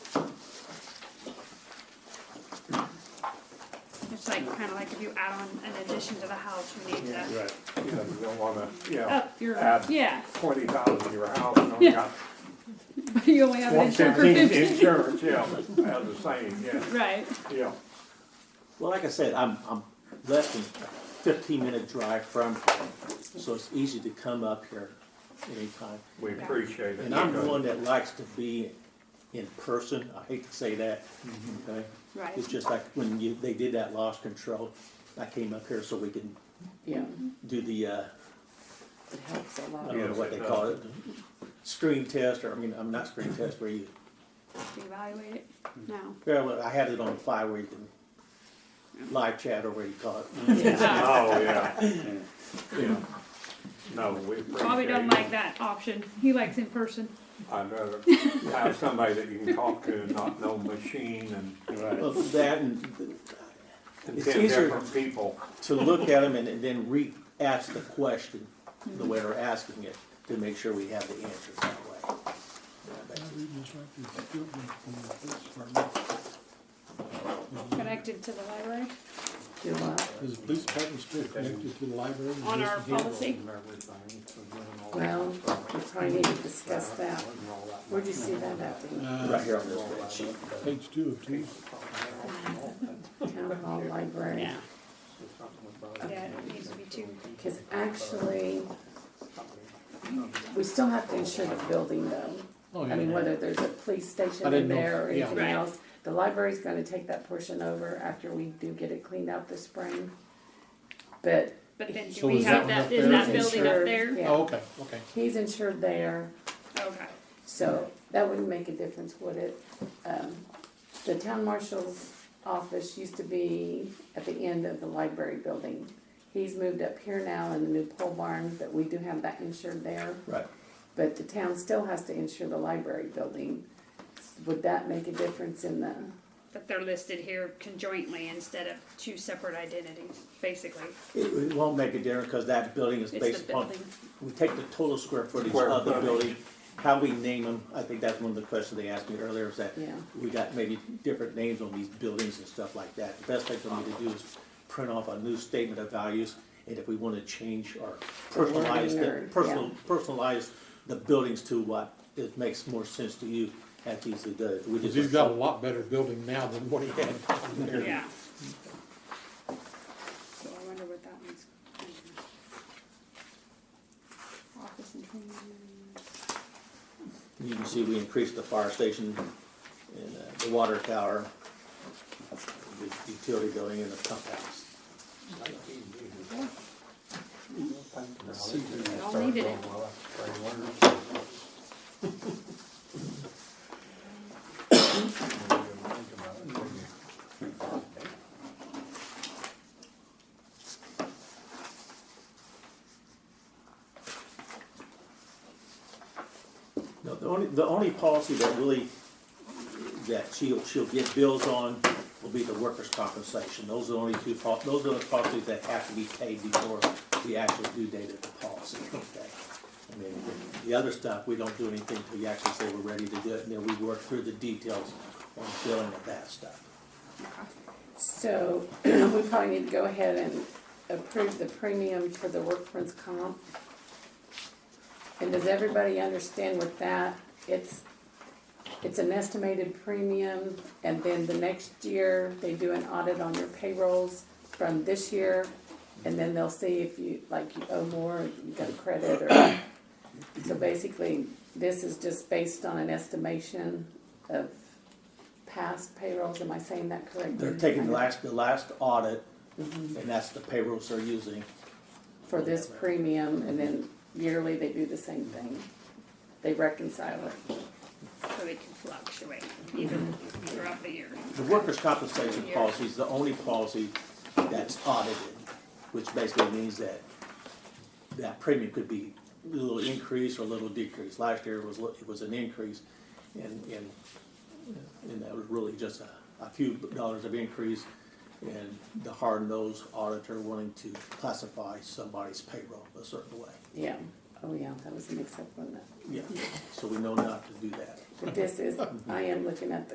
like, kinda like if you add on an addition to the house, you need Yeah, to right, you know, you don't wanna, you know, up your, add yeah, twenty thousand to your house, and only Oh, Yeah. got but you only have an one insurance for fifteen fifteen. insurance, yeah, as a saying, yeah, Right, yeah. Well, like I said, I'm, I'm less than fifteen minute drive from, here, so it's easy to come up here anytime. We appreciate it. And I'm the one that likes to be in person, I hate to say that, okay? right. It's just like when you, they did that lost control, I came up here so we could Yeah, do the, uh, it helps a I lot. don't know what they call it, screen test, or, I mean, I'm not screen test, where you, Evaluate it, no. yeah, well, I had it on fire where you can live chat or where you call it. Yeah. Oh, yeah, yeah, no, we appreciate it. Bobby doesn't like that option, he likes in person. I'd rather have somebody that you can talk to and not know machine and, Well, that and and It's ten easier- different people. to look at them and and then re-ask the question the way we're asking it to make sure we have the answer that way. Connected to the library Do what? Is the police department still connected to the library? on our policy. Well, we probably need to discuss that. Where'd you see that at? Right Uh, here on this spreadsheet. page two of two. The Town hall library? Yeah. Yeah, it needs to be two. Cause actually, we still have to insure the building though. Oh, I mean, yeah. whether there's a police I station in didn't know. there or Yeah. anything Right. else. The library's gonna take that portion over after we do get it cleaned out this spring. But But then do So we is have that one that, up is there? that It's building up insured, there? yeah. Oh, okay, okay. he's insured there, Okay, so that wouldn't make a difference, would it? Um, The town marshal's office used to be at the end of the library building. He's moved up here now in the new pole barn, but we do have that insured there. Right. But the town still has to insure the library building. Would that make a difference in the, but they're listed here conjointly instead of two separate identities, basically. It, it won't make a difference because that building is It's based the upon, building. we take the total square footage Square of the footage. building, how we name them. I think that's one of the questions they asked me earlier is that Yeah. we got maybe different names on these buildings and stuff like that. The best thing for me to do is print off a new statement of values and if we want to change or personalize Or- the, personal, yeah. personalize the buildings to what it makes more sense to you at these, uh, the, we Cause just. he's got a lot better building now than what he had. Yeah. So I wonder what that one's. Office and training. You can see we increased the fire station and uh, the water tower, the utility building and the pump house. all needed it. No, the only, the only policy that really, that she'll, she'll get bills on will be the workers' compensation. Those are the only two, pol- those are the policies that have to be paid before the actual due date of the policy, okay? I mean, the other stuff, we don't do anything until you actually say we're ready to do it, and then we work through the details on billing of that stuff. so we probably need to go ahead and approve the premium for the workman's comp. And does everybody understand with that? It's, it's an estimated premium and then the next year they do an audit on your payrolls from this year. And then they'll see if you, like, you owe more, you got a credit or. So basically, this is just based on an estimation of past payrolls. Am I saying that correctly? They're taking the last, the last audit, and that's the payrolls they're using. for this premium, and then yearly they do the same thing. They reconcile it. So it can fluctuate even throughout the year. The workers' compensation Yeah. policy is the only policy that's audited, which basically means that that premium could be a little increase or a little decrease. Last year was, it was an increase, and, and, and that was really just a, a few dollars of increase. And the hard-nosed auditor wanting to classify somebody's payroll a certain way, Yeah, oh yeah, that was a mix-up on that. yeah, so we know not to do that. But this is, I am looking at the